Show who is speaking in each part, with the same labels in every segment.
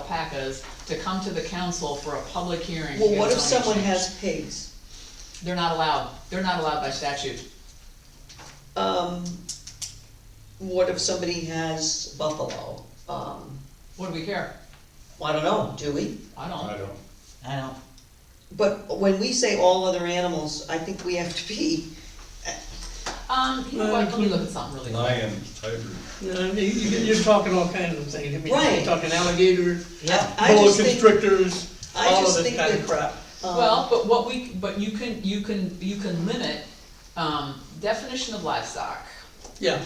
Speaker 1: alpacas to come to the council for a public hearing. to
Speaker 2: Well,
Speaker 1: get
Speaker 2: what
Speaker 1: a
Speaker 2: if
Speaker 1: zoning
Speaker 2: someone
Speaker 1: change.
Speaker 2: has pigs?
Speaker 1: They're not allowed, they're not allowed by statute.
Speaker 2: Um, what if somebody has buffalo? Um,
Speaker 1: What do we care?
Speaker 2: I don't know, do we?
Speaker 1: I
Speaker 3: I
Speaker 1: don't.
Speaker 3: don't,
Speaker 4: I don't,
Speaker 2: But when we say all other animals, I think we have to be,
Speaker 1: Um, you know what, let me look at something really quick.
Speaker 3: lion, tiger,
Speaker 5: No, I mean, you- You're talking all kinds of things, I mean,
Speaker 2: Right.
Speaker 5: you're talking alligators,
Speaker 4: yeah,
Speaker 2: I
Speaker 5: boa
Speaker 2: just think-
Speaker 5: constrictors,
Speaker 2: I
Speaker 5: all
Speaker 2: just
Speaker 5: of this
Speaker 2: think
Speaker 5: kind of
Speaker 2: that-
Speaker 5: crap.
Speaker 2: um,
Speaker 1: Well, but what we, but you can, you can, you can limit, um, definition of livestock,
Speaker 5: Yeah,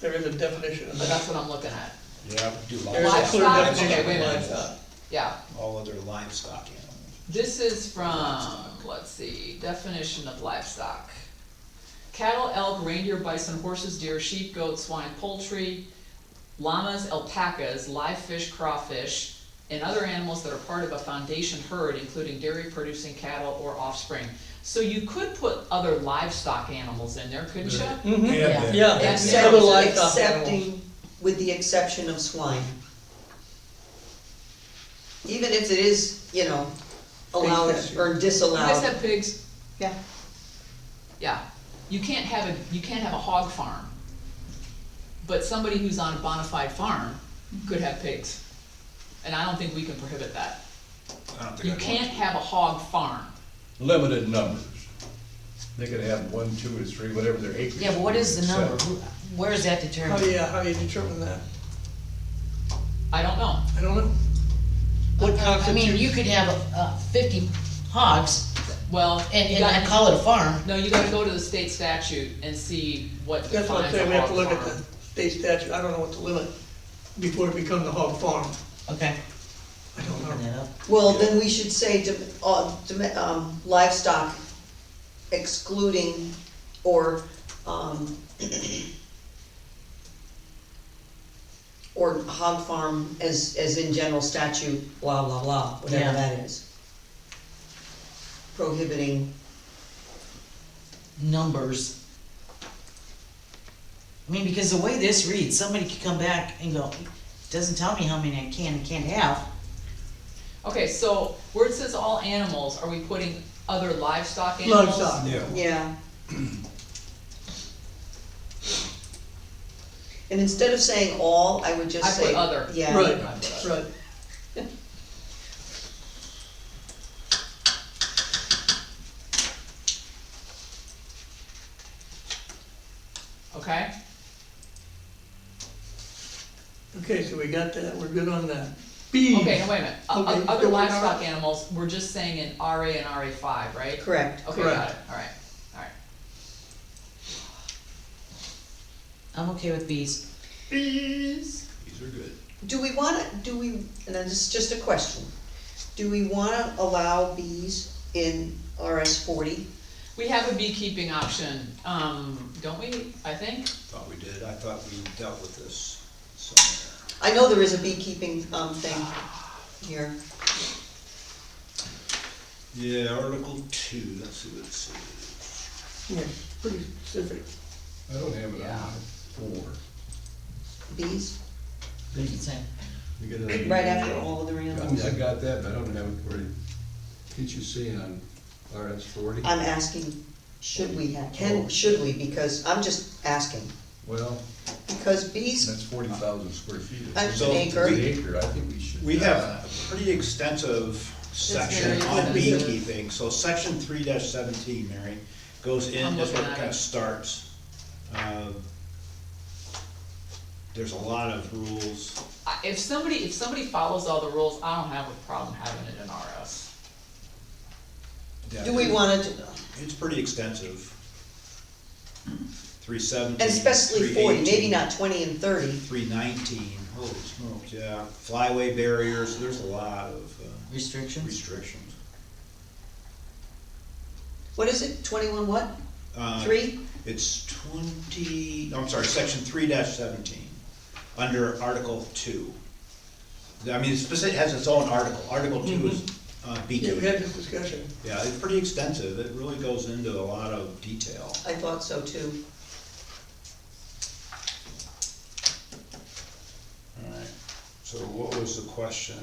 Speaker 5: there is a definition of
Speaker 1: but
Speaker 5: that.
Speaker 1: that's what I'm looking at,
Speaker 3: yeah,
Speaker 5: There
Speaker 3: do
Speaker 5: is a clear
Speaker 1: Livestock,
Speaker 5: definition
Speaker 1: okay, wait a
Speaker 5: of
Speaker 1: minute.
Speaker 5: livestock.
Speaker 1: yeah.
Speaker 6: all other livestock animals.
Speaker 1: This is from, let's see, definition of livestock. Cattle, elk, reindeer, bison, horses, deer, sheep, goats, swine, poultry, llamas, alpacas, live fish, crawfish, and other animals that are part of a foundation herd, including dairy-producing cattle or offspring. So you could put other livestock animals in there, couldn't you?
Speaker 5: Mhm.
Speaker 1: Yeah.
Speaker 3: And
Speaker 5: Yeah,
Speaker 3: then,
Speaker 1: That's
Speaker 5: yeah, other
Speaker 1: it.
Speaker 5: livestock animals.
Speaker 2: Accepting, with the exception of swine. Even if it is, you know, allowed
Speaker 5: Big fish.
Speaker 2: or
Speaker 1: You guys
Speaker 2: disallowed.
Speaker 1: have pigs,
Speaker 2: Yeah.
Speaker 1: yeah. You can't have a, you can't have a hog farm. But somebody who's on a bona fide farm could have pigs. And I don't think we can prohibit that.
Speaker 6: I don't think I'd
Speaker 1: You
Speaker 6: want
Speaker 1: can't have a hog farm.
Speaker 3: limited numbers. They could have one, two, or three, whatever their acreage.
Speaker 4: yeah, but what is the
Speaker 3: is, so-
Speaker 4: number? Who- Where is that
Speaker 5: How do
Speaker 4: determined?
Speaker 5: you, how do you determine that?
Speaker 1: I don't know.
Speaker 5: I don't know. What
Speaker 4: I mean, you
Speaker 5: constitutes,
Speaker 4: could have, uh, fifty hogs
Speaker 1: Well,
Speaker 4: and,
Speaker 1: you
Speaker 4: and I
Speaker 1: gotta-
Speaker 4: call it a farm.
Speaker 1: No, you gotta go to the state statute and see what
Speaker 5: that's what I'm
Speaker 1: defines a
Speaker 5: saying,
Speaker 1: hog farm.
Speaker 5: we have to look at the state statute, I don't know what to limit before it becomes a hog farm,
Speaker 4: Okay,
Speaker 5: I don't
Speaker 4: open
Speaker 5: know.
Speaker 4: that up.
Speaker 2: Well, then we should say dom- uh, dom- um, livestock excluding or, um, or hog farm as, as in general statute, blah, blah, blah,
Speaker 4: Yeah.
Speaker 2: whatever that is. Prohibiting,
Speaker 4: numbers. I mean, because the way this reads, somebody could come back and go, doesn't tell me how many I can and can't have.
Speaker 1: Okay, so where it says all animals, are we putting other livestock animals?
Speaker 5: Livestock,
Speaker 6: Yeah,
Speaker 2: yeah. And instead of saying all, I would
Speaker 1: I
Speaker 2: just
Speaker 1: put
Speaker 2: say.
Speaker 1: other.
Speaker 2: Yeah.
Speaker 5: right, right.
Speaker 1: Okay?
Speaker 5: Okay, so we got that, we're good on that. Bees.
Speaker 1: Okay, no, wait a minute, O-
Speaker 5: Okay,
Speaker 1: o- other
Speaker 5: so we're not-
Speaker 1: livestock animals, we're just saying in RA and RA five, right?
Speaker 2: Correct.
Speaker 1: Okay, got
Speaker 5: Correct.
Speaker 1: it, alright, alright.
Speaker 4: I'm okay with bees.
Speaker 1: Bees.
Speaker 6: these are good.
Speaker 2: Do we wanna, do we, and then this is just a question, do we wanna allow bees in RS forty?
Speaker 1: We have a beekeeping option, um, don't we, I think?
Speaker 6: Thought we did, I thought we dealt with this somewhere.
Speaker 2: I know there is a beekeeping, um, thing here,
Speaker 6: Yeah, Article two, let's see what it says.
Speaker 5: Yeah, pretty specific.
Speaker 3: I don't have it on
Speaker 1: Yeah.
Speaker 3: my four.
Speaker 2: bees,
Speaker 4: It's a-
Speaker 3: You get it on-
Speaker 2: right after all of the
Speaker 3: I mean, I
Speaker 2: animals.
Speaker 3: got that, but I don't have it where, can't you see on RS forty?
Speaker 2: I'm asking, should we have, can, should we, because, I'm just asking,
Speaker 3: Well,
Speaker 2: because bees,
Speaker 3: that's forty thousand square feet.
Speaker 2: An
Speaker 3: It's an
Speaker 2: acre.
Speaker 3: Acre, I think we should.
Speaker 6: We have
Speaker 3: uh,
Speaker 6: a pretty extensive section
Speaker 1: very
Speaker 6: on
Speaker 1: extensive.
Speaker 6: beekeeping, so section three seventeen, Mary, goes in,
Speaker 1: I'm
Speaker 6: that's where
Speaker 1: looking
Speaker 6: it
Speaker 1: at
Speaker 6: kinda
Speaker 1: it.
Speaker 6: starts. Um, There's a lot of rules,
Speaker 1: I- If somebody, if somebody follows all the rules, I don't have a problem having it in RS.
Speaker 6: that
Speaker 2: do we wanna, do-
Speaker 6: It's pretty extensive. Three seventeen.
Speaker 2: and especially forty, maybe not twenty and thirty,
Speaker 6: Three nineteen, holy smokes, yeah, flyway barriers, there's a lot of uh,
Speaker 4: Restrictions.
Speaker 6: restrictions.
Speaker 2: what is it, twenty-one what,
Speaker 6: Uh,
Speaker 2: three?
Speaker 6: It's twenty, no, I'm sorry, section three seventeen, under article two. I mean, it's specific, has its own article, article two is uh,
Speaker 5: Mm-hmm. Yeah, we
Speaker 6: beacon,
Speaker 5: had this discussion.
Speaker 6: yeah, it's pretty extensive, it really goes into a lot of detail.
Speaker 2: I thought so too,
Speaker 6: Alright, so what was the question?